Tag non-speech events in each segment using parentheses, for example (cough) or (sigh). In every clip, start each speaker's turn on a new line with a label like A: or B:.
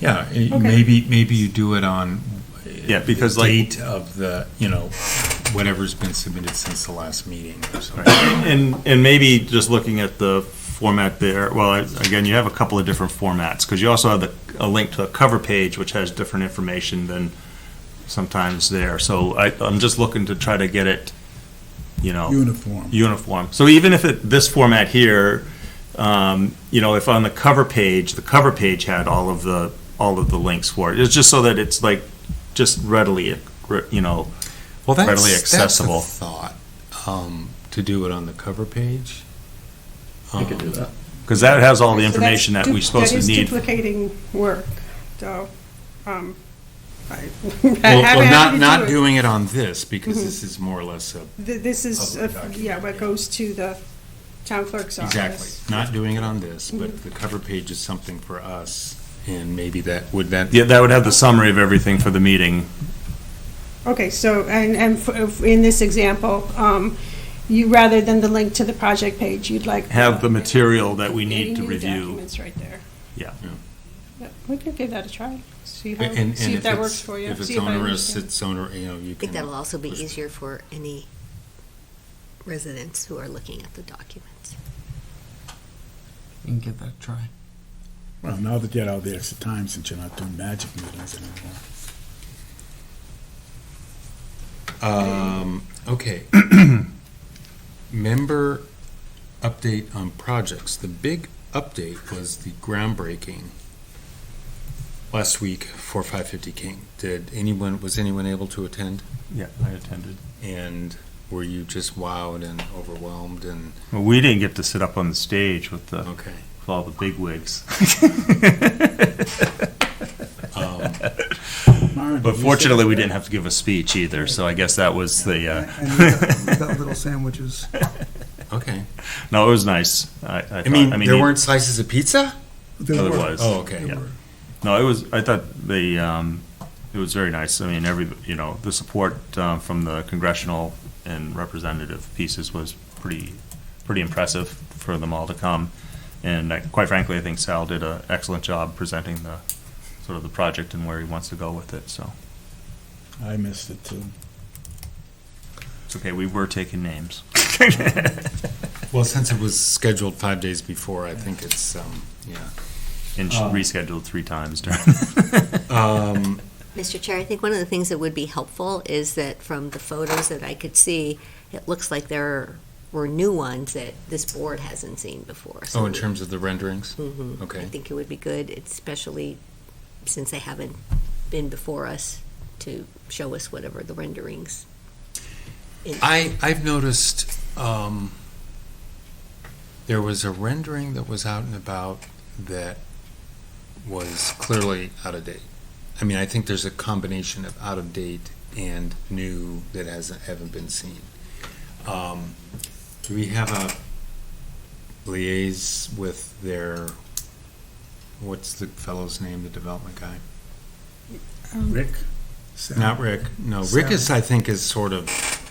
A: Yeah, it-
B: Okay.
A: maybe, maybe you do it on. uh,
C: Yeah, because
A: the
C: like-
A: Date of the, you know, whatever's been submitted since the last meeting or something.
C: Right. And, and maybe just looking at the format there, well, again, you have a couple of different formats, because you also have the, a link to a cover page, which has different information than sometimes there. So I, I'm just looking to try to get it, you know,
D: Uniform.
C: uniform. So even if it, this format here, um, you know, if on the cover page, the cover page had all of the, all of the links for it, it's just so that it's like, just readily, you know,
E: well, that's,
C: readily
E: that's a
C: accessible.
E: thought um, to do it on the cover page. Um,
C: you could do that. Because that has all the
B: So that's
C: information that we're
B: du-
C: supposed to
B: That is
C: need
B: duplicating work, so, um, I. (laughs)
E: Well,
B: I'm happy
E: well, not
B: to
E: not
B: do it. Mm-hmm.
E: doing it on this because this is more or less a
B: Th- This is,
A: Public
B: a-
A: document,
B: yeah, what
A: yeah.
B: goes to the town clerk's office.
E: Exactly. Not doing it on this, but
B: Mm-hmm.
E: the cover page is something for us, and maybe that, would that?
C: Yeah, that would have the summary of everything for the meeting.
B: Okay, so, and, and f- if- in this example, um, you, rather than the link to the project page, you'd like.
C: Have the material that we need
B: Any
C: to
B: new
C: review.
B: Documents right there.
C: Yeah.
B: Yep, We could give that a try, see
A: And-
B: how,
A: and
B: see if
A: if
B: that
A: it's-
B: works for you.
A: If it's
B: see I
A: onerous,
B: understand.
A: it's oner, you know, you
F: I
A: can.
F: think that'll also be
A: Just-
F: easier for any residents who are looking at the documents.
G: You can give that a try.
D: Well, now that you had all the extra time since you're not doing magic meetings anymore.
E: Um,
C: (clears throat)
E: okay. Member update on projects. The big update was the groundbreaking last week for five fifty King. Did anyone, was anyone able to attend?
C: Yeah, I attended.
E: And were you just wowed and overwhelmed and,
C: Well, we didn't get to sit up on the stage with the,
E: okay.
C: with all the big wigs.
D: Myron,
C: Um, But
D: you said-
C: fortunately, we didn't have to give a speech either, so I guess that was the,
H: And we got, we got
C: uh.
H: little sandwiches.
E: Okay.
C: (laughs) No, it was nice. I, I thought,
E: I mean, there
C: you-
E: weren't slices of pizza?
H: There
C: Oh, there
H: were-
C: was.
E: Oh, okay.
H: there
C: Yeah.
H: were.
C: No, it was, I thought the, um, it was very nice. I mean, every, you know, the support, um, from the congressional and representative pieces was pretty, pretty impressive for them all to come. And I- quite frankly, I think Sal did an excellent job presenting the, sort of the project and where he wants to go with it, so.
D: I missed it too.
C: It's okay, we were
E: (laughs)
C: taking names.
E: Well, since it was scheduled five days before, I think it's, um, yeah.
C: And
E: Um.
C: rescheduled three times during.
E: (laughs) Um,
F: Mr. Chair, I think one of the things that would be helpful is that from the photos that I could see, it looks like there were new ones that this board hasn't seen before.
E: oh, in terms of the renderings?
F: hmm
E: Okay.
F: I think it would be good, especially since they haven't been before us, to show us whatever the renderings. in-
E: I, I've noticed, um, there was a rendering that was out and about that was clearly out of date. I mean, I think there's a combination of out of date and new that hasn't, haven't been seen. Um, do we have a liaise with their, what's the fellow's name, the development guy?
D: Rick? Sal-
E: Not Rick, no, Rick is, I think, is sort of,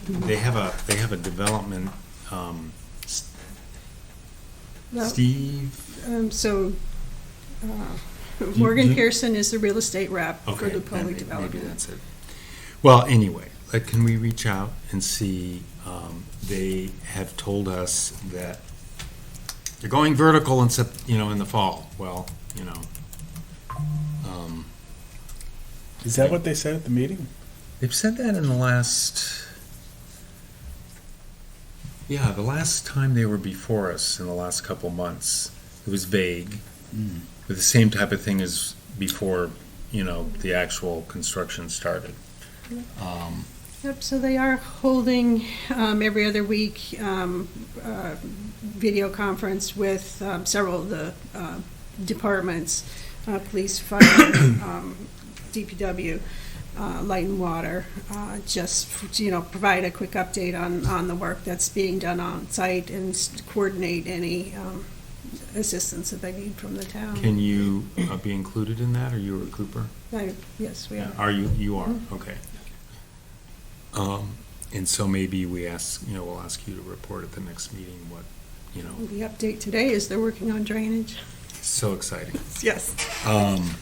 E: they have a, they have a development, um, S-
B: No.
E: Steve,
B: Um, so, uh,
E: you-
B: (laughs) Morgan Pearson is the real estate rep for
E: okay,
B: the
E: then may-
B: public
E: maybe
B: development.
E: that's it. Well, anyway, like, can we reach out and see, um, they have told us that they're going vertical in Sep, you know, in the fall, well, you know. um,
D: Is that what they said at the meeting?
E: They've said that in the last, yeah, the last time they were before us in the last couple months, it was vague.
D: Mm.
E: With the same type of thing as before, you know, the actual construction started. Um,
B: Yep, so they are holding, um, every other week, um, uh, video conference with, um, several of the, uh, departments, uh, police, fire, (coughs) um, DPW, uh, light and water, uh, just, f- you know, provide a quick update on, on the work that's being done on site and s- coordinate any, um, assistance that they need from the town.
E: Can you uh, be included in that, or you or Cooper?
B: I- Yes, we are.
E: Are you, you are, okay. Um, And so maybe we ask, you know, we'll ask you to report at the next meeting what, you know,
B: The update today is they're working on drainage.
E: so exciting.
B: Yes.
E: Um,